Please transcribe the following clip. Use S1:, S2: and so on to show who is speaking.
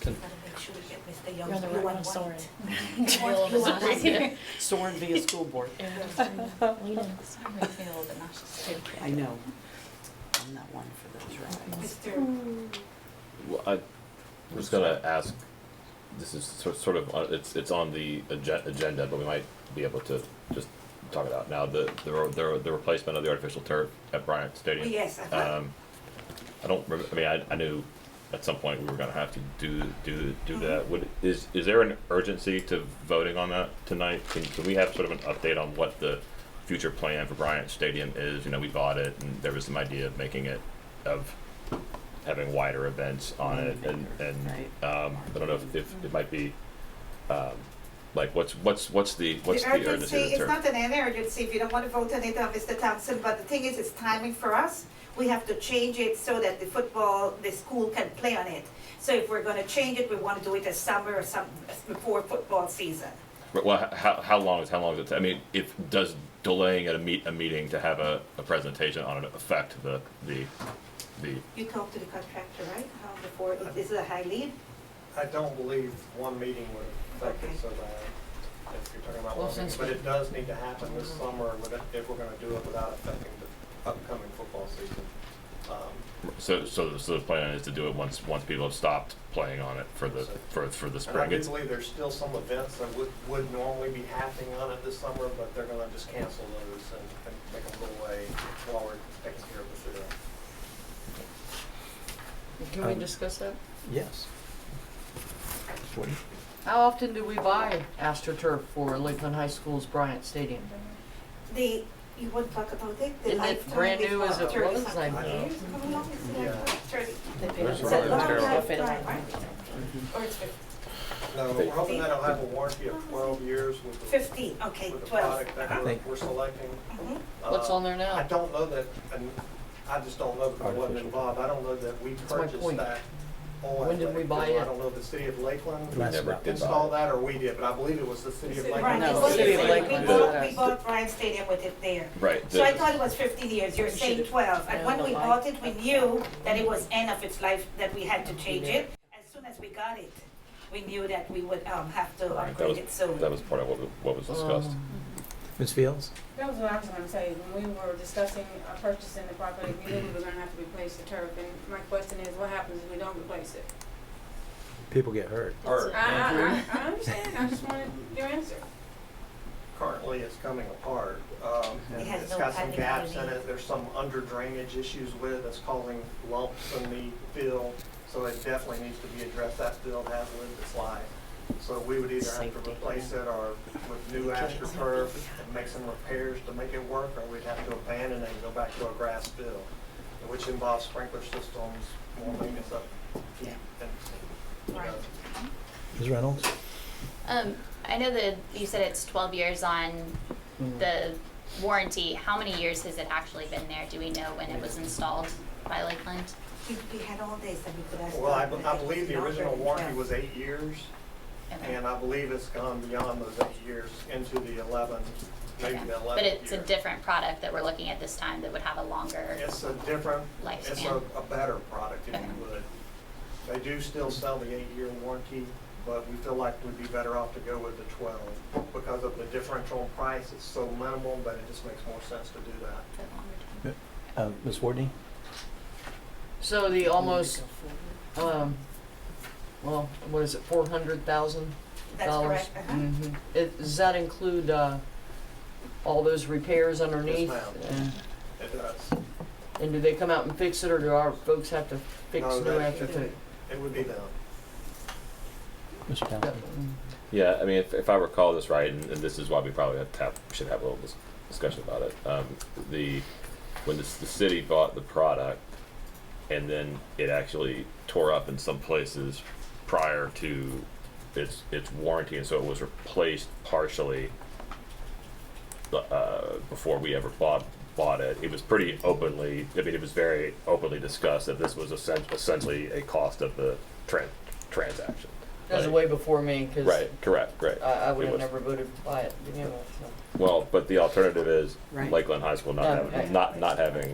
S1: Can-
S2: Make sure we get Mr.
S3: You're on
S2: Young's
S3: the
S2: blue
S3: right
S2: and
S3: one, sorry.
S2: white.
S3: Well,
S2: Blue and
S3: it's not-
S2: white.
S3: yeah.
S4: Soren via school board.
S3: Lean in.
S5: Sorry, I feel a little bit nauseous too.
S4: I know. I'm not one for those rides.
S2: Mr.
S1: Well, I was gonna ask, this is sor- sort of, on- it's, it's on the agen- agenda, but we might be able to just talk about now, the, the, ro- the, ro- the replacement of the artificial turf at Bryant Stadium.
S2: Yes, I thought-
S1: Um, I don't, rem- I mean, I, I knew at some point we were gonna have to do, do, do that. Would, is, is there an urgency to voting on that tonight? Can, can we have sort of an update on what the future plan for Bryant Stadium is? You know, we bought it and there was some idea of making it, of having wider events on it and, and, um, I don't know if, if it might be, um, like what's, what's, what's the, what's the
S2: urgency,
S1: urgency
S2: it's
S1: to turn?
S2: not an urgency, if you don't want to vote on it, uh, Mr. Thompson, but the thing is, it's timing for us. We have to change it so that the football, the school can play on it. So if we're gonna change it, we want to do it as summer or some, before football season.
S1: Right, Well, h- how, how long is, how long is it, ta- I mean, if, does delaying at a meet, a meeting to have a, a presentation on it affect the, the, the,
S2: You talked to the contractor, right, How before,
S1: Uh,
S2: is- is it a high lead?
S6: I don't believe one meeting would affect it so bad, if you're talking about
S5: Well,
S6: one meeting,
S5: since
S6: but
S5: we-
S6: it does need to happen this summer, with- if we're gonna do it without affecting the upcoming football season. Um,
S1: so, so, so the plan is to do it once, once people have stopped playing on it for the, for, for the
S6: And I
S1: spring?
S6: do
S1: It's-
S6: believe there's still some events that would, would normally be happening on it this summer, but they're gonna just cancel those and, and make them go away while we're taking care of the field.
S5: Can we
S7: Um,
S5: discuss that?
S7: Yes. Woody?
S5: How often do we buy AstroTurf for Lakeland High School's Bryant Stadium?
S2: The, you want to talk about it? The
S5: Isn't it
S2: lifetime
S5: brand new
S2: before
S5: as it
S2: 30
S5: was?
S2: something
S5: I-
S2: years? How long is it?
S6: Yeah.
S2: Thirty.
S3: They paid
S7: Where's
S3: us.
S2: It's a
S7: Ryan
S2: long
S7: Terrell?
S2: lifetime,
S3: They paid us.
S2: right? Or it's fif-
S6: No, we're hoping that it'll have a warranty of twelve years with the,
S2: fifteen, okay,
S6: with the
S2: twelve.
S6: product that we're,
S7: Thank-
S6: we're selecting.
S2: Mhm.
S5: What's
S6: Uh,
S5: on there
S6: I
S5: now?
S6: don't know that, and I just don't know because I wasn't
S7: Artificial.
S6: involved, I don't know that we
S5: my
S6: purchased
S5: point.
S6: that on.
S5: When did we buy
S6: Lakeland.
S5: it?
S6: I don't know if the city of Lakeland
S7: We never did buy
S6: installed
S1: it.
S6: that or we did, but I believe it was the city of
S2: Right,
S6: Lakeland.
S5: No,
S2: it's
S5: the
S2: what
S5: city
S2: you
S5: of
S2: said.
S5: Lakeland
S2: We
S1: did
S2: bought, we
S5: that.
S2: bought Bryan Stadium with it there.
S1: Right.
S2: So I
S1: the-
S2: thought it was fifteen years, you're
S5: We
S2: saying
S5: should've-
S2: twelve, and
S5: Yeah,
S2: when
S5: but
S2: we
S5: like-
S2: bought it, we knew that it was end of its life, that we had to change it. As soon as we got it, we knew that we would, um, have to
S1: Right, that
S2: upgrade
S1: was,
S2: it soon.
S1: that was part of what, we- what was discussed.
S5: Um,
S7: Ms. Fields?
S8: That was what I was gonna say, when we were discussing uh, purchasing the property, we knew we were gonna have to replace the turf, and my question is, what happens if we don't replace it?
S7: People get hurt.
S6: Or
S8: I, I, I, I understand, I just wanted your answer.
S6: currently it's coming apart. Um, and
S2: It has
S6: it's
S2: no
S6: got some
S2: padding
S6: gaps in
S2: underneath.
S6: it, there's some under drainage issues with it that's causing lumps in the field. So it definitely needs to be addressed, that field has lived its life. So we would either have to
S3: Safety.
S6: replace it or with new astroturf and make some repairs to make it work, or we'd have to abandon it and go back to a grass field, which involves sprinkler systems, more maintenance up.
S2: Yeah.
S6: And, you know,
S2: Right.
S7: Ms. Reynolds?
S9: Um, I know that you said it's twelve years on
S5: Mm-hmm.
S9: the warranty. How many years has it actually been there? Do we know when it was installed by Lakeland?
S2: We, we had all days that we could ask.
S6: Well, I,
S2: them, but
S6: I
S2: it
S6: believe the
S2: was
S6: original
S2: longer than
S6: warranty
S2: 12.
S6: was eight years.
S9: Okay.
S6: And uh, I believe it's gone beyond those eight years into the eleven, maybe
S9: Okay.
S6: the eleventh year.
S9: But it's a different product that we're looking at this time that would have a longer.
S6: It's a different, it's a,
S9: Lifespan.
S6: a better product if
S9: Okay.
S6: you would. They do still sell the eight-year warranty, but we feel like we'd be better off to go with the twelve because of the differential in price. It's so minimal, but it just makes more sense to do that.
S9: for the longer term.
S7: Uh, Ms. Wardney?
S5: So the almost, um, well, what is it, four hundred thousand
S2: That's
S5: dollars?
S2: correct, uh-huh.
S6: Mm-hmm.
S5: Does that include, uh, all those repairs underneath?
S6: ma'am.
S5: And-
S6: It does.
S5: And do they come out and fix it, or do our folks have to fix
S6: No,
S5: new
S6: they-
S5: after
S6: they-
S5: fix?
S6: It would be them.
S7: Mr. Townsend?
S1: Yeah, I mean, if, if I recall this right, and, and this is why we probably have to have, should have a little dis- discussion about it. Um, the when the, the city bought the product, and then it actually tore up in some places prior to its its warranty, and so it was replaced partially uh, before we ever bought bought it. It was pretty openly. I mean, it was very openly discussed that this was essen- essentially a cost of the tran- transaction.
S5: That was
S1: Like-
S5: way before me, because I,
S1: Right, correct, correct.
S5: I would
S1: It
S5: have
S1: was-
S5: never voted to buy it to begin with, so.
S1: Well, but the alternative is
S3: Right.
S1: Lakeland High School not
S5: Yeah,
S1: having,
S5: okay.
S1: not, not having